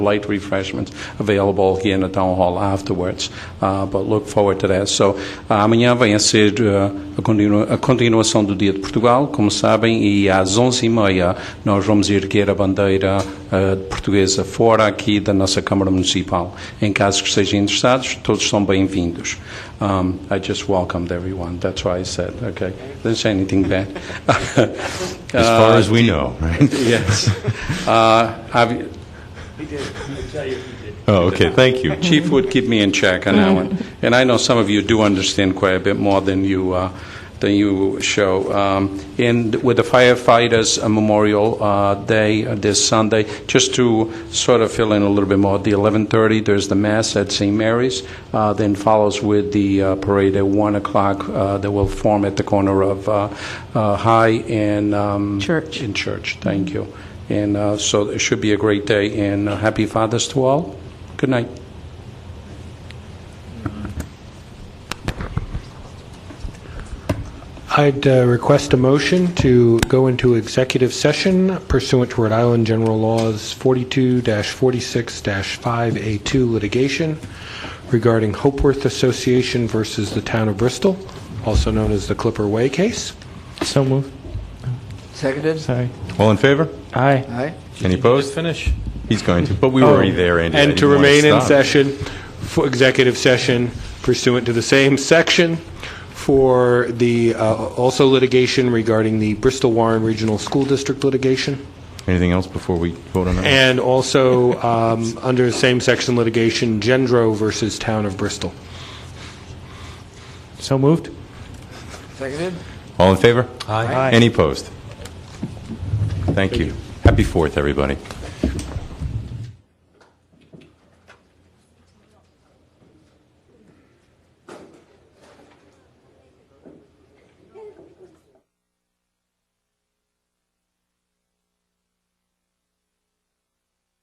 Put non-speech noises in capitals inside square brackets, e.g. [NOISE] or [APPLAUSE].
light refreshments available here in the town hall afterwards, Uh, but look forward to that. So, ah, amanhã vai ser ah, a, continua- a continuação do Dia de Portugal, como sabem, e às 11h30 nós vamos erguer a bandeira ah, portuguesa fora aqui da nossa Câmara Municipal. Em caso que estejam interessados, todos são bem-vindos. Um, I just welcomed everyone, that's why I said, okay, didn't say anything bad. As far as we know, Uh, [LAUGHS] [LAUGHS] right? Yes. Uh, have- Oh, okay, thank [LAUGHS] you. Chief would keep me in check on that one. And I know some of you do understand quite a bit more than you, uh, than you show. Um, And with the firefighters' Memorial uh, Day uh, this Sunday, just to sort of fill in a little bit more, the 11:30, there's the mass at St. Mary's, uh, then follows with the uh, parade at 1 o'clock uh, that will form at the corner of uh, uh, High and... um, Church. In church, thank you. And uh, so it should be a great day, and uh, happy Fathers to all. Good night. I'd uh, request a motion to go into executive session pursuant to Rhode Island General Laws 42-46-5A2 litigation regarding Hopeworth Association versus the Town of Bristol, also known as the Clipper Way case. So moved. Seconded? Sorry. All in favor? Aye. Aye. Any opposed? Finish. He's going to, Oh. but we were already there, Andy. I And to didn't want remain in stop. session, for executive session pursuant to the same section for the, uh, also litigation regarding the Bristol Warren Regional School District litigation. Anything else before we vote on that? And also, um, under the same section litigation, Gendro versus Town of Bristol. So moved. Seconded? All in favor? Aye. Any opposed? Thank you. Happy Fourth, everybody.